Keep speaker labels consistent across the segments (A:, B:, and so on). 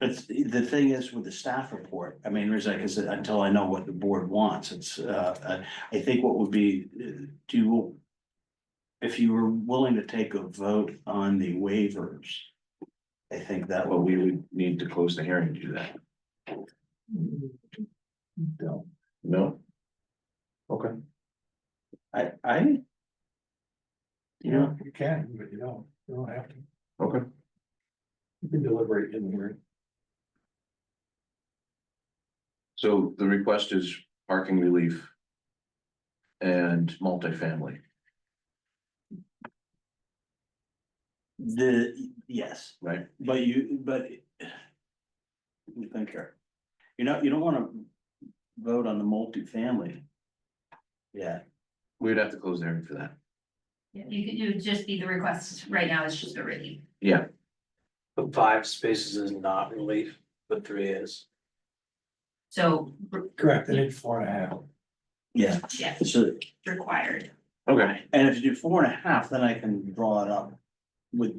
A: But the thing is with the staff report, I mean, there's like I said, until I know what the board wants, it's, uh, uh, I think what would be, uh, do you. If you were willing to take a vote on the waivers, I think that
B: Well,
A: would,
B: we would need to close the hearing to do that. No. No? Okay.
A: I, I. You know,
C: You can, but you don't, you don't have to.
B: Okay.
C: You can deliberate in here.
B: So the request is parking relief. And multifamily.
A: the, yes.
B: Right.
A: But you, but. Let me think here. You know, you don't wanna vote on the multifamily. Yeah,
B: We'd have to close the hearing for that.
D: Yeah, You could, it would just be the request right now, it's just a relief.
B: Yeah,
E: But five spaces is not relief, but three is.
D: So, re-
C: Correct, they need four and a half.
A: yeah,
D: yeah,
A: so
D: required.
B: okay.
A: And if you do four and a half, then I can draw it up with,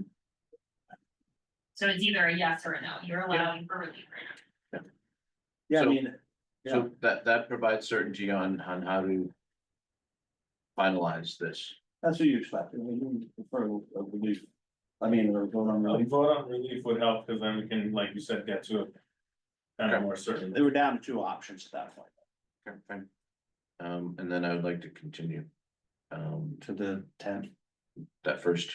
D: So it's either a yes or a no, you're allowing for relief right now.
A: yeah, I
B: So-
A: mean,
B: So that, that provides certainty on, on how to. Finalize this.
A: that's what you expect. I mean, you prefer a relief. I mean, we're going on,
F: A
A: relief.
F: vote on relief would help, because then we can, like you said, get to a kind of more certain.
A: they were down to two options at that point,
B: Okay, fine. Um, and then I would like to continue. Um,
A: to the tenth.
B: that first,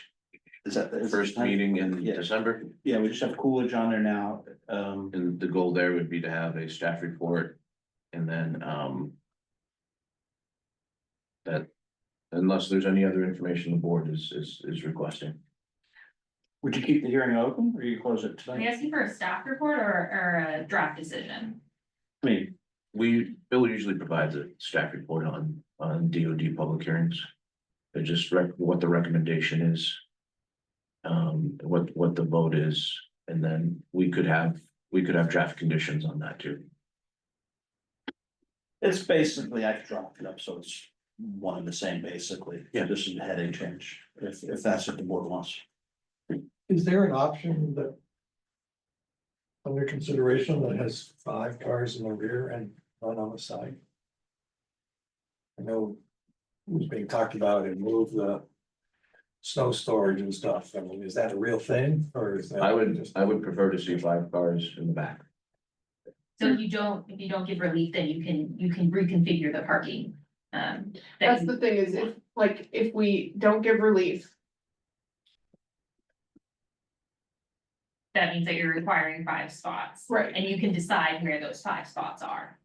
A: Is that? is it
B: first
A: 10th?
B: meeting in
A: Yeah.
B: December,
A: Yeah, we just have Coolidge on there now, um,
B: and the goal there would be to have a staff report. And then, um. That, unless there's any other information the board is, is, is requesting.
A: would you keep the hearing open or you close it
D: Are you
A: tonight?
D: asking for a staff report or, or a draft decision?
A: I mean,
B: We, Bill usually provides a staff report on, on DOD public hearings. They're just rec- what the recommendation is. Um, what, what the vote is, and then we could have, we could have draft conditions on that too.
A: it's basically, I've dropped it up, so it's one and the same basically.
B: Yeah.
A: Just a heading change, if, if that's what the board wants.
C: Is there an option that? Under consideration that has five cars in the rear and none on the side? I know. It was being talked about and move the. Snow storage and stuff, I mean, is that a real thing or is that?
B: I would, I would prefer to see five cars in the back.
D: So if you don't, if you don't give relief, then you can, you can reconfigure the parking. Um, that
G: That's
D: you-
G: the thing is if, like, if we don't give relief,
D: that means that you're requiring five spots.
G: Right.
D: And you can decide where those five spots are.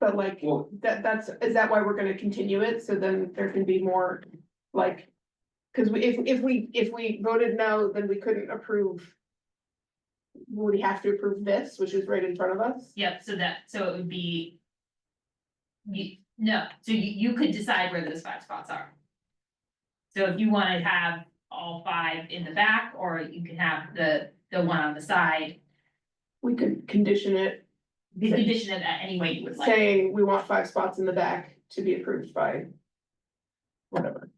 G: but like,
B: Well-
G: that, that's, is that why we're gonna continue it? So then there can be more, like. Cause we, if, if we, if we voted no, then we couldn't approve. Would we have to approve this, which is right in front of us?
D: Yep, so that, so it would be. You, no, so you, you could decide where those five spots are. So if you wanna have all five in the back, or you can have the, the one on the side,
G: We could condition it,
D: the condition of that any way you would like.
G: saying we want five spots in the back to be approved by. Whatever.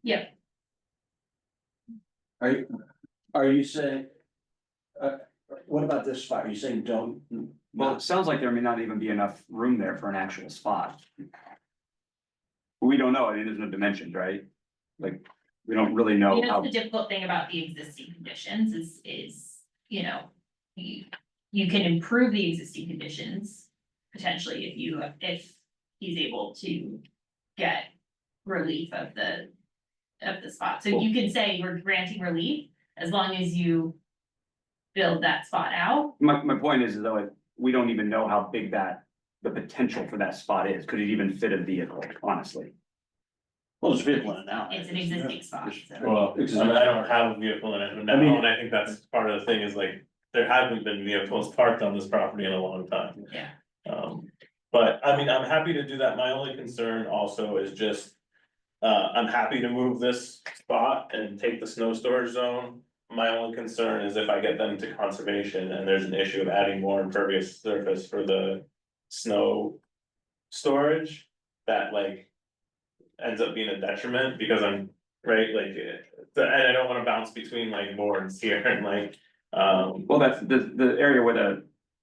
A: Are you, are you saying? Uh, what about this spot? Are you saying don't?
H: Well, it sounds like there may not even be enough room there for an actual spot. We don't know, I mean, there's no dimensions, right? Like, we don't really know
D: You know,
H: how,
D: the difficult thing about the existing conditions is, is, you know, you, you can improve the existing conditions. Potentially if you, if he's able to get relief of the, of the spot, so you can say we're granting relief as long as you. Build that spot out,
H: my, my point is, though, like, we don't even know how big that, the potential for that spot is, could it even fit a vehicle, honestly?
A: Well, there's a vehicle in it now.
D: it's an existing spot, so.
F: Well, I mean, I don't have a vehicle in it
A: I mean-
F: now, and I think that's part of the thing is like, there haven't been vehicles parked on this property in a long time.
D: Yeah.
F: Um, but I mean, I'm happy to do that. My only concern also is just. Uh, I'm happy to move this spot and take the snow storage zone. My only concern is if I get them to conservation and there's an issue of adding more impervious surface for the snow. Storage, that like. Ends up being a detriment because I'm, right, like, eh, so- and I don't wanna bounce between like boards here and like, um.
H: Well, that's the, the area where the